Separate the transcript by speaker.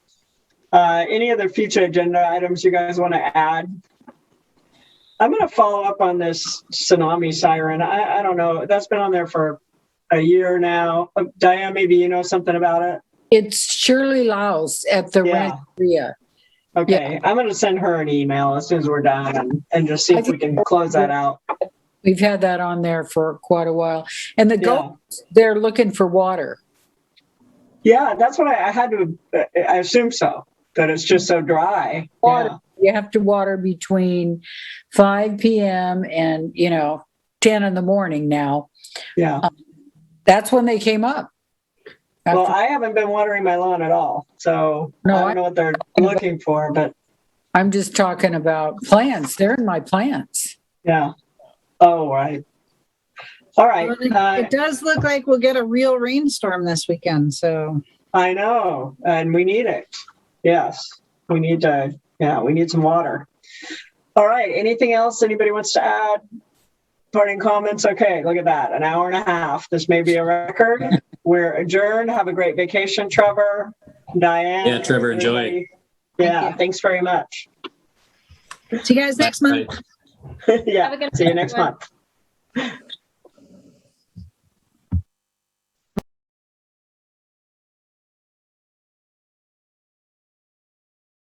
Speaker 1: Uh, any other future agenda items you guys want to add? I'm going to follow up on this tsunami siren. I, I don't know. That's been on there for a year now. Uh, Diane, maybe you know something about it?
Speaker 2: It's Shirley Laus at the
Speaker 1: Yeah.
Speaker 2: Rancheria.
Speaker 1: Okay, I'm going to send her an email as soon as we're done and, and just see
Speaker 2: I
Speaker 1: if we can close that out.
Speaker 2: We've had that on there for quite a while. And the goats, they're looking for water.
Speaker 1: Yeah, that's what I, I had to, I assume so, that it's just so dry.
Speaker 2: Water. You have to water between 5 p.m. and, you know, 10 in the morning now.
Speaker 1: Yeah. yeah.
Speaker 2: That's when they came up.
Speaker 1: Well,
Speaker 2: After-
Speaker 1: I haven't been watering my lawn at all. So
Speaker 2: No,
Speaker 1: I don't
Speaker 2: I-
Speaker 1: know what they're looking for, but
Speaker 2: I'm just talking about plants. They're in my plants.
Speaker 1: yeah. Oh, right. All right.
Speaker 3: Well, it-
Speaker 1: Uh,
Speaker 3: It does look like we'll get a real rainstorm this weekend, so
Speaker 1: I know, and we need it. Yes, we need to, yeah, we need some water. All right, anything else anybody wants to add? Parting comments? Okay, look at that, an hour and a half. This may be a record. We're adjourned. Have a great vacation, Trevor, Diane.
Speaker 4: Yeah, Trevor, enjoy.
Speaker 1: everybody.
Speaker 3: Thank
Speaker 1: Yeah,
Speaker 3: you.
Speaker 1: thanks very much.
Speaker 3: see you guys next month.
Speaker 4: Bye.
Speaker 1: Yeah,
Speaker 5: Have a good
Speaker 1: see you
Speaker 5: night,
Speaker 1: next
Speaker 5: everyone.
Speaker 1: month.